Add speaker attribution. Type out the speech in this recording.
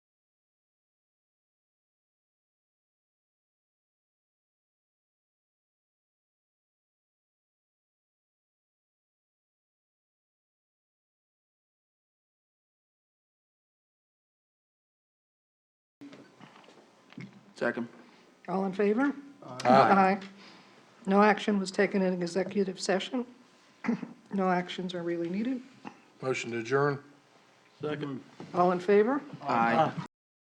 Speaker 1: Second.
Speaker 2: All in favor? Aye. No action was taken in executive session. No actions are really needed.
Speaker 3: Motion to adjourn.
Speaker 1: Second.
Speaker 2: All in favor?
Speaker 1: Aye.